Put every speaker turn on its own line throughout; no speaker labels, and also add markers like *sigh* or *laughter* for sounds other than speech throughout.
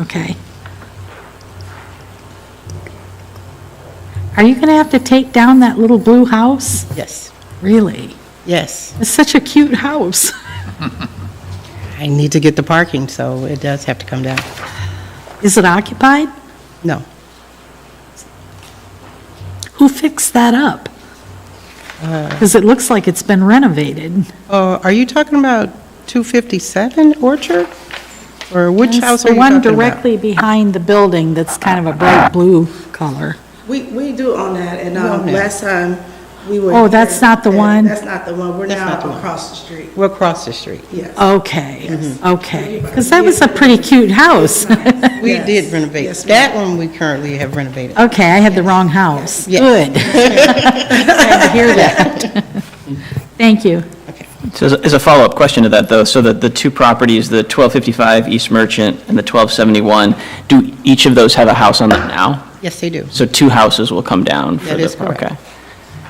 Okay. Are you going to have to take down that little blue house?
Yes,
Really?
yes.
It's such a cute house. *laughs*
I need to get the parking, so it does have to come down.
Is it occupied?
No,
Who fixed that up? Because it looks like it's been renovated.
Uh, Are you talking about 257 Orchard? Or which house are
The
you
one
talking about?
directly behind the building that's kind of a bright blue color.
We, we do own that, and
We
um,
own it.
last time we were.
Oh, that's
here,
not the
and
one?
That's not the one, we're
That's
now
not the one. Oh,
across the street,
We're across the street.
yes.
Okay,
Mm-hmm.
okay. Because that was a pretty cute house. *laughs* Okay,
We
Yes.
did renovate.
Yes, ma'am.
That one we currently have renovated.
I had the wrong house.
Yes.
Good. *laughs* Glad to hear that. Thank you.
So as a- as a follow-up question to that, though, so that the two properties, the 1255 East Merchant and the 1271, do each of those have a house on them now?
Yes, they do.
So two houses will come down for the...
That is correct.
Okay.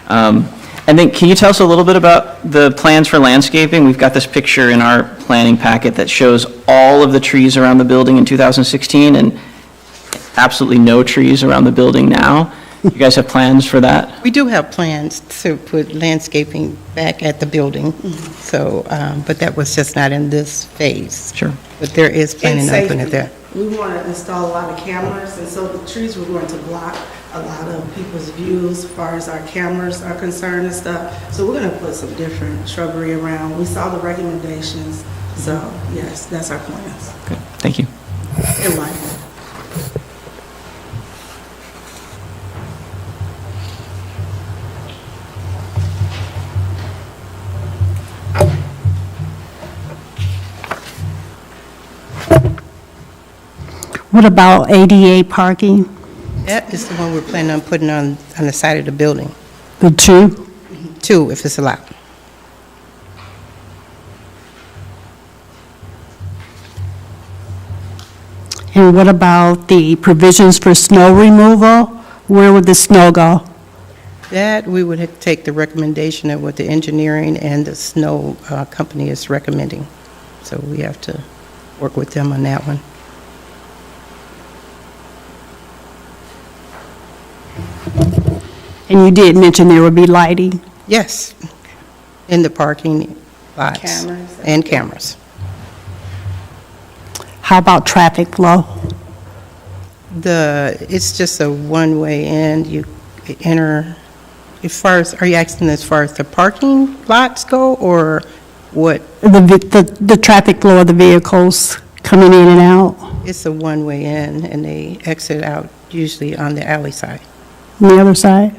Um, And then, can you tell us a little bit about the plans for landscaping? We've got this picture in our planning packet that shows all of the trees around the building in 2016 and absolutely no trees around the building now. You guys have plans for that?
We do have plans to put landscaping back at the building,
Mm-hmm.
so, um, but that was just not in this phase.
Sure.
But there is
And
planning on putting it there.
safety. We want to install a lot of cameras, and so the trees were going to block a lot of people's views as far as our cameras are concerned and stuff. So we're going to put some different shrubbery around. We saw the recommendations, so yes, that's our plans.
Good. Thank you.
in life.
What about ADA parking?
That is the one we're planning on putting on, on the side of the building,
The two?
too, if it's allowed.
And what about the provisions for snow removal? Where would the snow go?
That, we would have to take the recommendation of what the engineering and the snow uh, company is recommending. So we have to work with them on that one.
And you did mention there would be lighting.
Yes, in the parking lots.
Cameras.
And cameras.
How about traffic flow?
The, it's just a one-way in, you enter, as far as, are you asking as far as the parking lots go, or what?
The, vi- the, the traffic flow of the vehicles coming in and out
It's a one-way in, and they exit out usually on the alley side.
on the other side?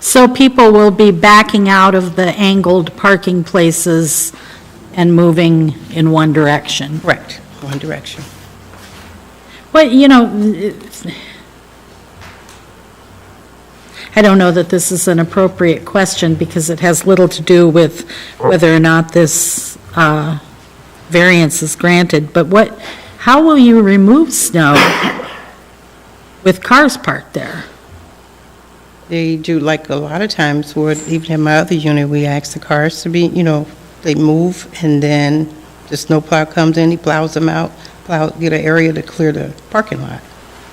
So people will be backing out of the angled parking places and moving in one direction.
Correct. One direction.
But, you know, it's- I don't know that this is an appropriate question because it has little to do with whether or not this uh, variance is granted. But what, how will you remove snow with cars parked there?
They do, like a lot of times, where even in my other unit, we ask the cars to be, you know, they move, and then the snowplow comes in, he plows them out, plow, get an area to clear the parking lot.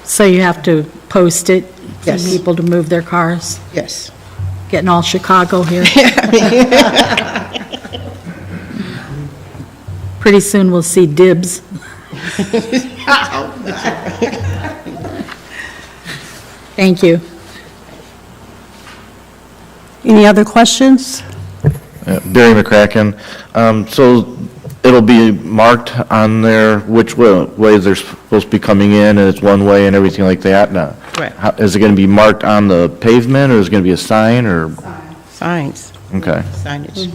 So you have to post it for
Yes.
people to move their cars?
Yes.
Getting all Chicago here. Pretty soon we'll see dibs. Thank you.
Any other questions?
Yeah, Barry McCracken. Um, So it'll be marked on there which wa- way they're supposed to be coming in, and it's one way and everything like that? Now,
Right.
how- Is it going to be marked on the pavement, or is it going to be a sign, or?
Signs,
Okay,
signage,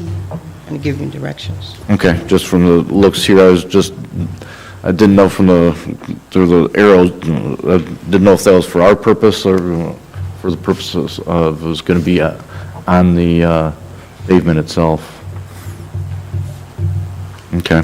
and give you directions.
okay, just from the looks here, I was just, I didn't know from the, through the arrows, I didn't know if that was for our purpose or for the purposes of, it was going to be uh, on the uh, pavement itself. Okay.